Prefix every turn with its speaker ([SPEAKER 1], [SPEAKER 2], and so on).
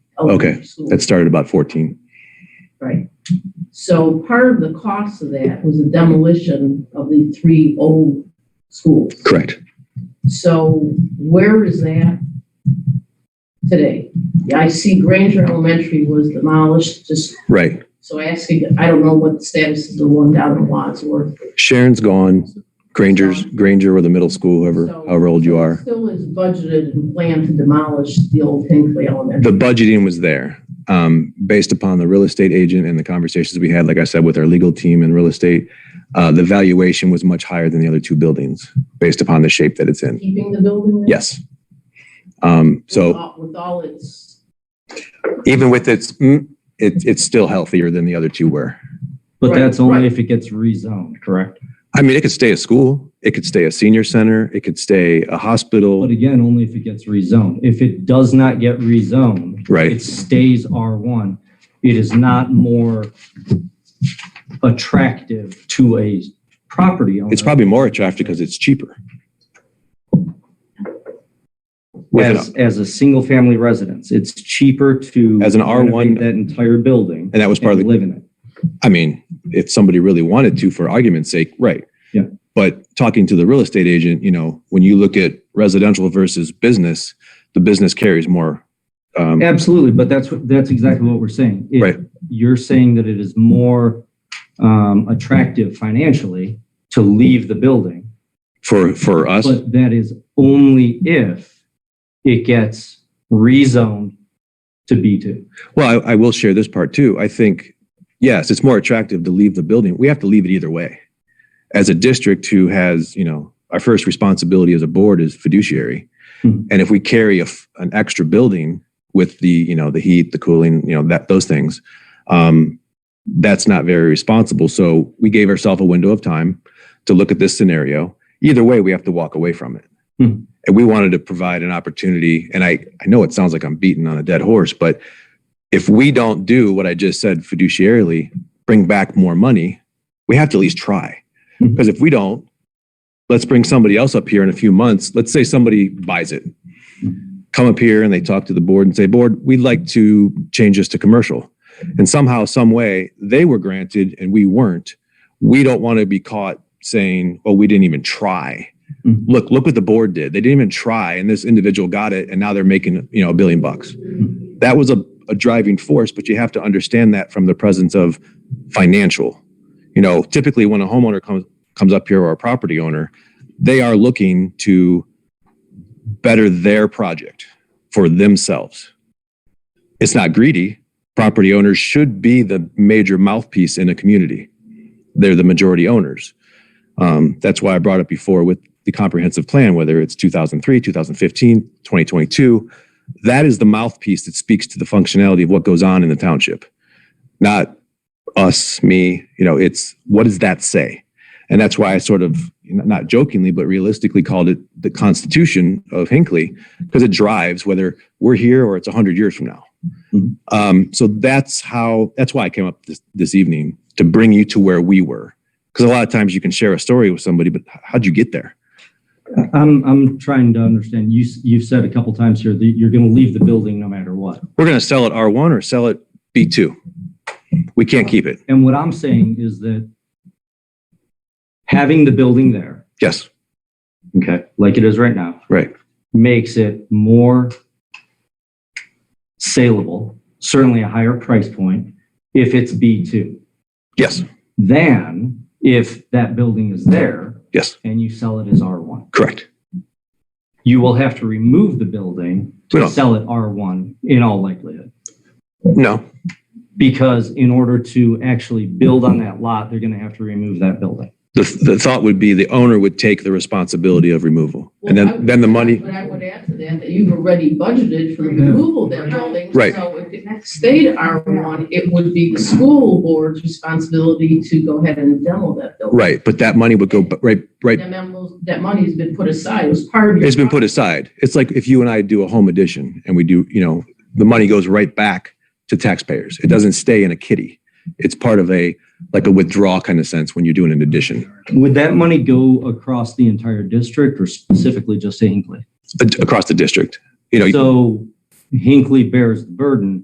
[SPEAKER 1] Okay,
[SPEAKER 2] so-
[SPEAKER 1] That started about 14.
[SPEAKER 2] Oh, Right. So part of the cost of that was the demolition of the three old schools.
[SPEAKER 1] Correct.
[SPEAKER 2] So where is that today? Yeah, I see Granger Elementary was demolished, just
[SPEAKER 1] Right.
[SPEAKER 2] so asking, I don't know what the status is of the one down in Wadsworth.
[SPEAKER 1] Sharon's gone. Granger's, Granger or the middle school, whoever,
[SPEAKER 2] So-
[SPEAKER 1] however old you are.
[SPEAKER 2] Still is budgeted and planned to demolish the old Hinckley Elementary.
[SPEAKER 1] The budgeting was there. Um, based upon the real estate agent and the conversations we had, like I said, with our legal team and real estate, uh, the valuation was much higher than the other two buildings based upon the shape that it's in.
[SPEAKER 2] Keeping the building? there?
[SPEAKER 1] Yes. Um, so.
[SPEAKER 2] With all- With all its,
[SPEAKER 1] even with its, mm, it, it's still healthier than the other two were.
[SPEAKER 3] But
[SPEAKER 2] Right,
[SPEAKER 3] that's only
[SPEAKER 2] right.
[SPEAKER 3] if it gets rezoned, correct?
[SPEAKER 1] I mean, it could stay a school, it could stay a senior center, it could stay a hospital,
[SPEAKER 3] But again, only if it gets rezoned. If it does not get rezoned, it
[SPEAKER 1] right?
[SPEAKER 3] stays R1. It is not more attractive to a property owner.
[SPEAKER 1] It's probably more attractive because it's cheaper. With an-
[SPEAKER 3] As, as a single-family residence, it's cheaper to.
[SPEAKER 1] As an R1
[SPEAKER 3] renovate That entire building.
[SPEAKER 1] And that was part of
[SPEAKER 3] and
[SPEAKER 1] the,
[SPEAKER 3] Live in it.
[SPEAKER 1] I mean, if somebody really wanted to, for argument's sake, right?
[SPEAKER 3] Yeah.
[SPEAKER 1] But talking to the real estate agent, you know, when you look at residential versus business, the business carries more. Um,
[SPEAKER 3] Absolutely, but that's, what- that's exactly what we're saying. If
[SPEAKER 1] Right.
[SPEAKER 3] You're saying that it is more um, attractive financially to leave the building.
[SPEAKER 1] for, for us,
[SPEAKER 3] But that is only if it gets rezoned to B2.
[SPEAKER 1] Well, I, I will share this part too. I think, yes, it's more attractive to leave the building. We have to leave it either way. As a district who has, you know, our first responsibility as a board is fiduciary.
[SPEAKER 3] Hmm.
[SPEAKER 1] And if we carry a f an extra building with the, you know, the heat, the cooling, you know, that, those things, um, that's not very responsible. So we gave ourselves a window of time to look at this scenario. Either way, we have to walk away from it.
[SPEAKER 3] Hmm.
[SPEAKER 1] And we wanted to provide an opportunity. And I, I know it sounds like I'm beating on a dead horse, but if we don't do what I just said fiduciarily, bring back more money, we have to at least try.
[SPEAKER 3] Mhm.
[SPEAKER 1] Because if we don't, let's bring somebody else up here in a few months. Let's say somebody buys it. Come up here and they talk to the board and say, Board, we'd like to change this to commercial. And somehow, some way, they were granted and we weren't. We don't want to be caught saying, Oh, we didn't even try.
[SPEAKER 3] Mhm.
[SPEAKER 1] Look, look what the board did. They didn't even try. And this individual got it and now they're making, you know, a billion bucks that was a, a driving force, but you have to understand that from the presence of financial. You know, typically when a homeowner comes comes up here or a property owner, they are looking to better their project for themselves. It's not greedy. Property owners should be the major mouthpiece in a community. They're the majority owners. Um, that's why I brought up before with the comprehensive plan, whether it's 2003, 2015, 2022 that is the mouthpiece that speaks to the functionality of what goes on in the township not us me you know it's what does that say and that's why i sort of not jokingly but realistically called it the constitution of hinckley because it drives whether we're here or it's 100 years from now
[SPEAKER 3] Mhm.
[SPEAKER 1] um, so that's how that's why i came up this, this evening to bring you to where we were because a lot of times you can share a story with somebody but h- how'd you get there
[SPEAKER 3] I'm, I'm trying to understand, you, s- you've said a couple times here that you're going to leave the building no matter what.
[SPEAKER 1] we're going to sell it r1 or sell it b2 we can't keep it
[SPEAKER 3] And what I'm saying is that having the building there,
[SPEAKER 1] yes
[SPEAKER 3] okay, like it is right now.
[SPEAKER 1] Right.
[SPEAKER 3] Makes it more saleable, certainly a higher price point, if it's B2.
[SPEAKER 1] Yes,
[SPEAKER 3] than if that building is there
[SPEAKER 1] yes,
[SPEAKER 3] and you sell it as R1.
[SPEAKER 1] correct.
[SPEAKER 3] You will have to remove the building
[SPEAKER 1] We
[SPEAKER 3] to
[SPEAKER 1] don't-
[SPEAKER 3] sell it R1 in all likelihood.
[SPEAKER 1] No,
[SPEAKER 3] Because in order to actually build on that lot, they're going to have to remove that building.
[SPEAKER 1] the, the thought would be the owner would take the responsibility of removal. And
[SPEAKER 2] Well, I
[SPEAKER 1] then,
[SPEAKER 2] would-
[SPEAKER 1] then the money,
[SPEAKER 2] But I would add to that, that you've already budgeted for the removal of that building.
[SPEAKER 1] Right.
[SPEAKER 2] So if it stayed R1, it would be the school board's responsibility to go ahead and demo that building.
[SPEAKER 1] right, but that money would go, b- right, right,
[SPEAKER 2] That memo- That money's been put aside, it was part of. your-
[SPEAKER 1] it's been put aside. It's like if you and I do a home addition and we do, you know, the money goes right back to taxpayers. It doesn't stay in a kitty. It's part of a, like a withdrawal kind of sense when you're doing an addition
[SPEAKER 3] Would that money go across the entire district or specifically
[SPEAKER 1] uh,
[SPEAKER 3] just to Hinckley?
[SPEAKER 1] a- across the district. You know,
[SPEAKER 3] So Hinckley bears the burden